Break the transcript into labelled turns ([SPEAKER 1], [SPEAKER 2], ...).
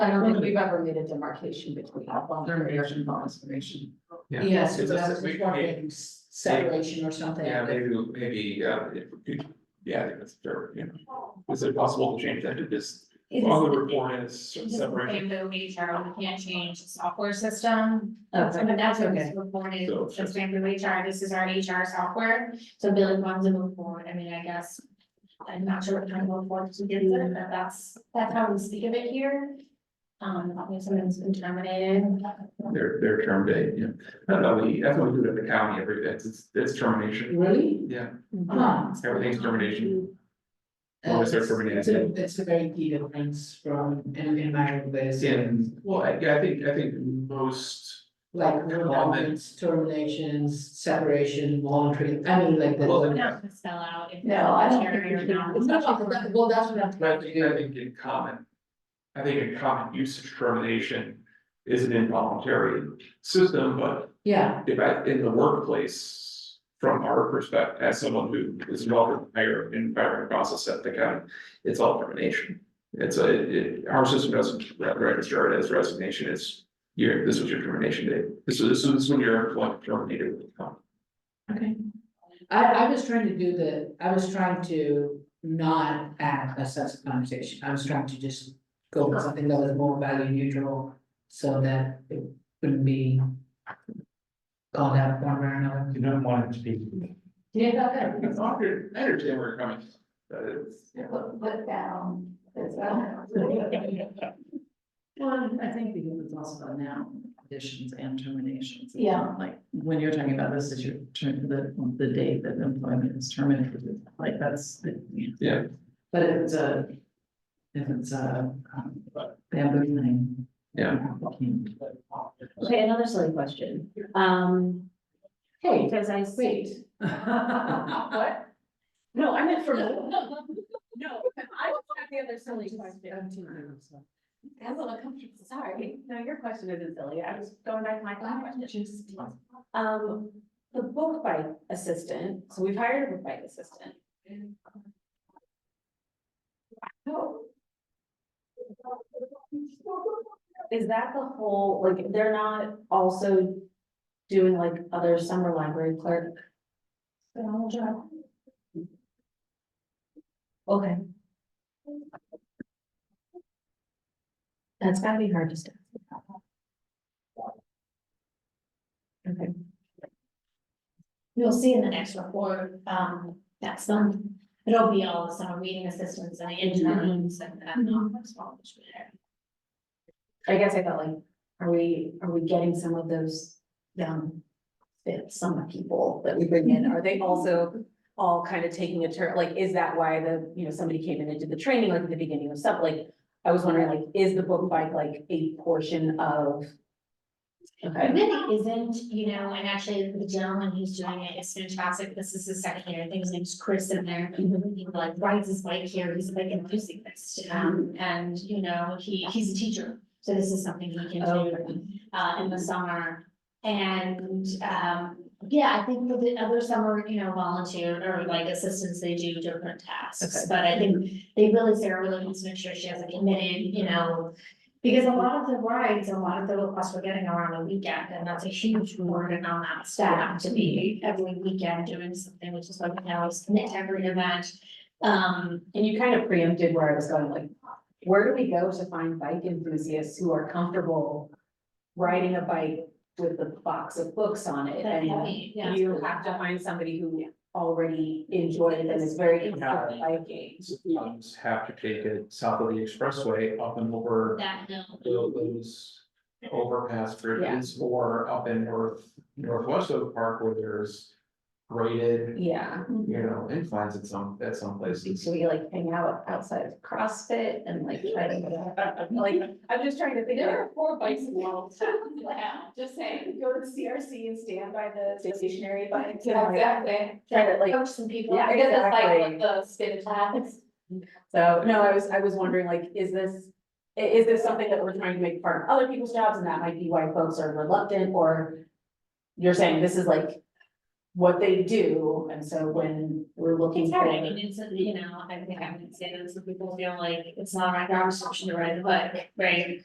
[SPEAKER 1] I don't think we've ever made a demarcation between voluntary and
[SPEAKER 2] information.
[SPEAKER 3] Yeah.
[SPEAKER 1] Yeah, so
[SPEAKER 2] It's a-
[SPEAKER 1] that's
[SPEAKER 2] we-
[SPEAKER 1] just wondering s- separation or something.
[SPEAKER 2] Yeah, maybe, maybe, uh, if we could- yeah, I think that's fair, you know, is it possible to change that to this, all the report is
[SPEAKER 4] It's just the
[SPEAKER 2] separation?
[SPEAKER 4] same movie, Cheryl, we can't change the software system.
[SPEAKER 1] Oh, Okay.
[SPEAKER 4] But that's what
[SPEAKER 1] Okay.
[SPEAKER 4] was reported,
[SPEAKER 2] So it's
[SPEAKER 4] it's
[SPEAKER 2] just-
[SPEAKER 4] been through HR, this is our HR software, so Billy wants to move forward, I mean, I guess. I'm not sure what kind of move forward to get there, but that's, that's how we speak of it here. Um, obviously someone's been terminated.
[SPEAKER 2] Their, their term date, yeah, I don't know, we, that's what we do it at the county every day, it's, it's termination,
[SPEAKER 1] Really?
[SPEAKER 2] yeah,
[SPEAKER 1] Huh.
[SPEAKER 2] everything's termination.
[SPEAKER 5] Uh,
[SPEAKER 2] Or is there
[SPEAKER 5] it's-
[SPEAKER 2] termination?
[SPEAKER 5] it's a- It's a very key difference from an environment where it's
[SPEAKER 2] It's in, well, I, yeah, I think, I think most,
[SPEAKER 5] like comments, terminations, separation, monitoring, I mean, like
[SPEAKER 2] Well,
[SPEAKER 5] the.
[SPEAKER 4] We're not gonna spell out if.
[SPEAKER 1] No, I don't think
[SPEAKER 4] Terry or
[SPEAKER 1] we should-
[SPEAKER 4] not.
[SPEAKER 1] it's not like that, well, that's what I'm.
[SPEAKER 2] I think, I think in common. I think in common usage termination is an involuntary system, but
[SPEAKER 1] Yeah,
[SPEAKER 2] if I, in the workplace, from our perspective, as someone who is involved in higher in hiring process at the county, it's all termination. It's a, it- it, our system doesn't register it as resignation, it's your, this was your termination date, this is, this is when your employment terminated with the county.
[SPEAKER 5] Okay. I, I was trying to do the, I was trying to not add a sex connotation, I was trying to just go with something that was more value neutral, so that it wouldn't be called out one way or another.
[SPEAKER 3] You don't want it to be.
[SPEAKER 1] yeah,
[SPEAKER 2] It's all good. I understand where you're coming, from, but it's.
[SPEAKER 1] Put down. Yeah,
[SPEAKER 6] Well, I think because it's also about now additions and terminations. It's
[SPEAKER 1] Yeah.
[SPEAKER 6] not Like, when you're talking about this, is your term, the, the date that employment is terminated, like, that's, you know.
[SPEAKER 2] Yeah.
[SPEAKER 6] But if it's a, if it's a um, bamboo thing.
[SPEAKER 2] Yeah.
[SPEAKER 7] Okay, another silly question. Um, hey, because I see.
[SPEAKER 1] What?
[SPEAKER 7] No, I meant for. No, I was have the other silly question.
[SPEAKER 4] That's a little comfortable, sorry.
[SPEAKER 7] No, your question isn't silly. I was going back to my question.
[SPEAKER 4] Just-
[SPEAKER 7] Um, the book by assistant, so we've hired a book by assistant. um, Is that the whole, like, they're not also doing like other summer library clerk? Okay. That's gotta be hard to stop. Okay.
[SPEAKER 4] You'll see in the next report, um, that some, it'll be all the summer reading assistants and interns and that,
[SPEAKER 7] Mm-hmm.
[SPEAKER 4] not that's all which we have.
[SPEAKER 7] I guess I felt like, are we, are we getting some of those young fit summer people that we bring in? Are they also all kind of taking a turn? Like, is that why the, you know, somebody came in and did the training like at the beginning of stuff? Like, I was wondering, like, is the book bike like a portion of?
[SPEAKER 4] It
[SPEAKER 7] Okay,
[SPEAKER 4] really isn't, you know, and actually the gentleman who's doing it is fantastic. This is his second year. I think his name's Chris in there. He like rides his bike here. He's like enthusiastic. Um, and you know, he, he's a teacher. So this is something he can
[SPEAKER 7] Oh.
[SPEAKER 4] do, uh, in the summer. And, um, yeah, I think for the other summer, you know, volunteer or like assistants, they do different tasks.
[SPEAKER 7] Okay.
[SPEAKER 4] But I think they really, Sarah really wants to make sure she has a committed, you know, because a lot of the rides, a lot of the requests we're getting are on the weekend, and that's a huge burden on that staff to be every weekend doing something, which is why we now is commit to every event. Um,
[SPEAKER 7] and you kind of preempted where I was going, like, where do we go to find bike enthusiasts who are comfortable riding a bike with the box of books on it
[SPEAKER 4] that
[SPEAKER 7] and
[SPEAKER 4] heavy, yeah.
[SPEAKER 7] You have to find somebody who already enjoyed it and is very comfortable biking.
[SPEAKER 2] Sometimes have to take it south of the expressway up and over
[SPEAKER 4] That, no.
[SPEAKER 2] those overpass bridges or up in north, northwest of the park where there's graded,
[SPEAKER 7] Yeah,
[SPEAKER 2] you know, inclines at some, at some places.
[SPEAKER 7] so we like hang out outside of CrossFit and like try to, like, I'm just trying to think. There are four bikes in the world. Just saying, go to the CRC and stand by the stationary bike.
[SPEAKER 1] Exactly.
[SPEAKER 7] Try to like
[SPEAKER 4] Coach some people.
[SPEAKER 7] Yeah,
[SPEAKER 1] I guess it's like
[SPEAKER 7] exactly.
[SPEAKER 1] with the spin class.
[SPEAKER 7] So, no, I was, I was wondering, like, is this, i- is this something that we're trying to make part of other people's jobs, and that might be why folks are reluctant, or you're saying this is like what they do, and so when we're looking
[SPEAKER 4] It's
[SPEAKER 7] for.
[SPEAKER 4] hard, I mean, it's, you know, I think I would say that some people feel like it's not my job description to ride a bike, right?